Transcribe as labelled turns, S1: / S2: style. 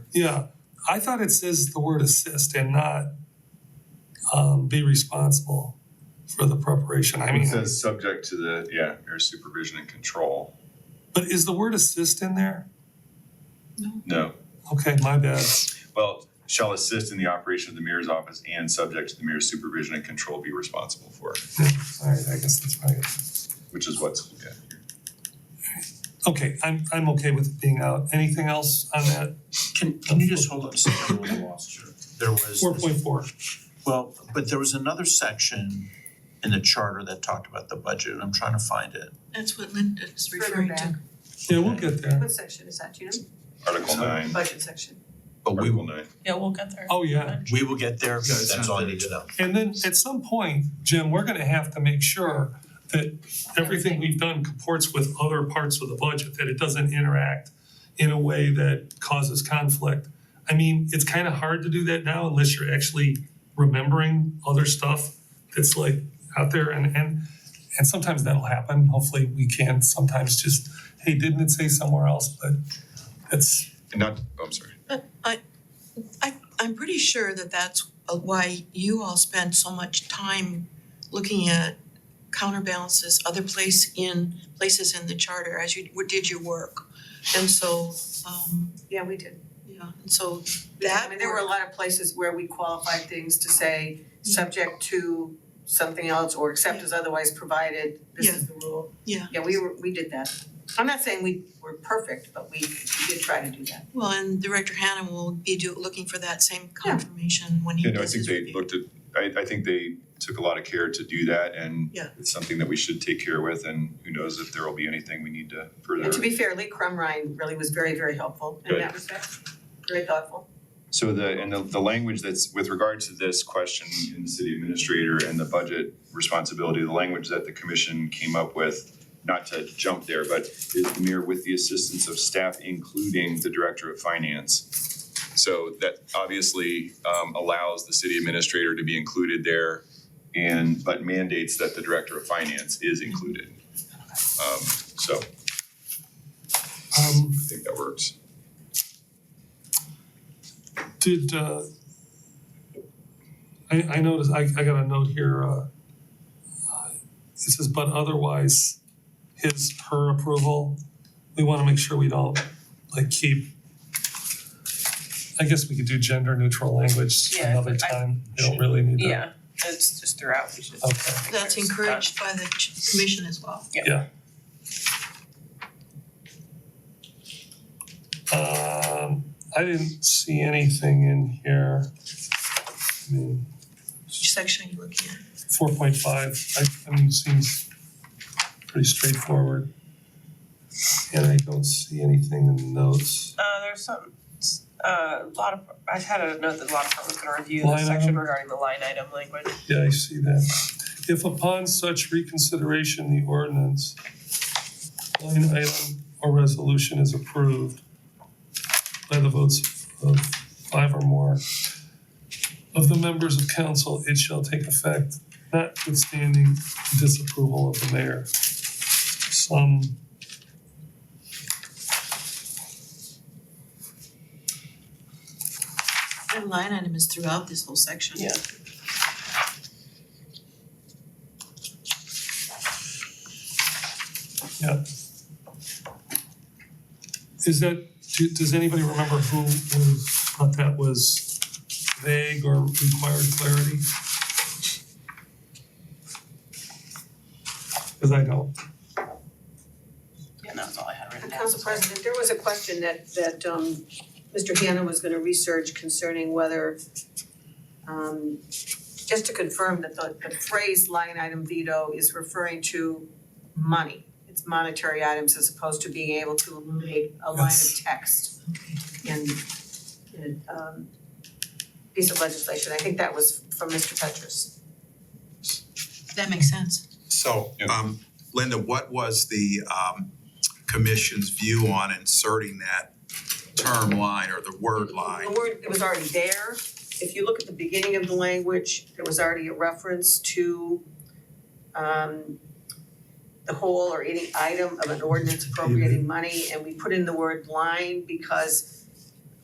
S1: Yeah, I thought it says the word assist and not um be responsible for the preparation, I
S2: It
S1: mean,
S2: says subject to the, yeah, your supervision and control.
S1: but is the word assist in there?
S2: No.
S1: Okay, my bad,
S2: Well, shall assist in the operation of the mayor's office and subject to the mayor's supervision and control be responsible for,
S1: alright, I guess that's right.
S2: which is what's, yeah.
S1: Okay, I'm I'm okay with it being out, anything else on that,
S3: Can can you just hold on a second, I really lost you. There was,
S1: four point four,
S3: well, but there was another section in the charter that talked about the budget, and I'm trying to find it.
S4: That's what Linda's referring to.
S1: yeah, we'll get there,
S5: What section is that, do you know?
S2: Article nine, Oh,
S5: Budget section.
S3: But we
S2: Article
S3: will,
S2: nine.
S4: Yeah, we'll get there.
S1: oh yeah.
S3: we will get there,
S6: it's
S3: that's
S6: not
S3: all I
S6: there
S3: need to know.
S1: And then at some point, Jim, we're gonna have to make sure that everything we've done comports with other parts of the budget, that it doesn't interact in a way that causes conflict. I mean, it's kind of hard to do that now unless you're actually remembering other stuff that's like out there and and and sometimes that'll happen. Hopefully we can sometimes just, hey, didn't it say somewhere else? But it's
S2: And not, oh, I'm sorry.
S4: I, I'm pretty sure that that's uh, why you all spend so much time looking at counterbalances, other place in, places in the charter as you w- did your work. And so, um,
S5: Yeah, we did.
S4: yeah, and so
S5: I
S4: that
S5: mean, there were a
S4: work,
S5: lot of places where we qualified things to say, subject to something else or except as otherwise provided, this is the rule.
S4: Yeah.
S5: Yeah, we were, we did that. I'm not saying we were perfect, but we we did try to do that.
S4: well, and Director Hannah will be do, looking for that same confirmation when he
S2: You know, I
S4: does
S2: think
S4: his review.
S2: they looked at, I, I think they took a lot of care to do that and
S4: Yeah.
S2: it's something that we should take care with and who knows if there will be anything we need to further.
S5: And to be fair, Lee Crumrine really was very, very helpful in
S2: Good.
S5: that respect, very thoughtful.
S2: So the, and the, the language that's with regard to this question in the city administrator and the budget responsibility, the language that the commission came up with, not to jump there, but is the mayor with the assistance of staff, including the director of finance. So that obviously um allows the city administrator to be included there and, but mandates that the director of finance is included. Um, so I
S1: um
S2: think that works.
S1: Did, uh, I, I noticed, I, I got a note here, uh, uh, it says, but otherwise, his, her approval, we wanna make sure we don't, like, keep, I guess we could do gender neutral language
S7: Yeah,
S1: another
S7: I-
S1: time, we don't really need to.
S7: Yeah, it's just throughout, we should.
S1: Okay.
S4: That's encouraged by the ch- commission as well.
S1: Um, I didn't see anything in here. I mean,
S4: Which section are you looking at?
S1: four point five, I, I mean, seems pretty straightforward. And I don't see anything in the notes.
S7: Uh, there's some, uh, a lot of, I had a note that a lot of departments gonna review
S1: Line
S7: this section
S1: item.
S7: regarding the line item language.
S1: Yeah, I see that. If upon such reconsideration, the ordinance, line item or resolution is approved by the votes of five or more of the members of council, it shall take effect notwithstanding disapproval of the mayor. Some
S4: That line item is throughout this whole section.
S7: Yeah.
S1: Is that, do, does anybody remember who, who thought that was vague or required clarity? Cause I don't,
S7: Yeah, that was all I had written
S5: And
S7: down.
S5: Uh, Council President, there was a question that that um Mr. Hanna was gonna research concerning whether um just to confirm that the the phrase line item veto is referring to money. It's monetary items as opposed to being able to eliminate a line
S1: Yes.
S5: of text in in a um piece of legislation. I think that was from Mr. Petrus.
S4: That makes sense.
S6: So,
S2: Yeah.
S6: um, Linda, what was the, um, commission's view on inserting that term line or the word line?
S5: The word, it was already there. If you look at the beginning of the language, there was already a reference to um the whole or any item of an ordinance appropriating money, and we put in the word line because